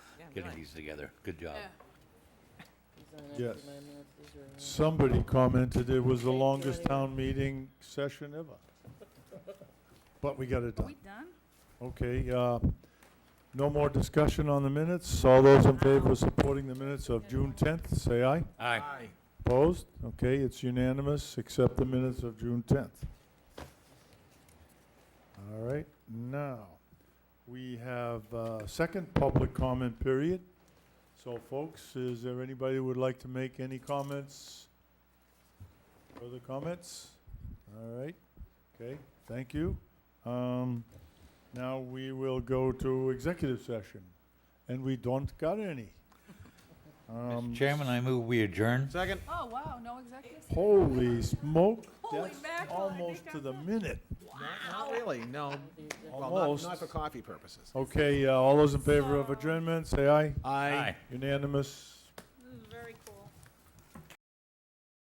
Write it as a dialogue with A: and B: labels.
A: getting these together. Good job.
B: Yeah.
C: Yes. Somebody commented it was the longest town meeting session ever. But we got it
B: Are
C: done.
B: we done?
C: Okay, uh, no more discussion on the minutes. All those in favor of supporting the minutes of June 10th, say aye.
A: Aye.
C: Opposed? Okay, it's unanimous, except the minutes of June 10th. All right, now, we have uh second public comment period. So folks, is there anybody who would like to make any comments? Further comments? All right, okay, thank you. Um, Now we will go to executive session, and we don't got any. Um,
A: Mr. Chairman, I move we adjourn.
D: Second?
B: Oh, wow, no executive? session?
C: Holy smoke,
B: Holy
C: that's
B: mackerel, I
C: almost
B: think
C: to
B: I'm
C: the
B: done.
C: minute.
D: Not really, no. Well,
C: Almost.
D: not, not for coffee purposes.
C: Okay, uh, all those in favor of adjournment, say aye.
A: Aye.
C: Unanimous,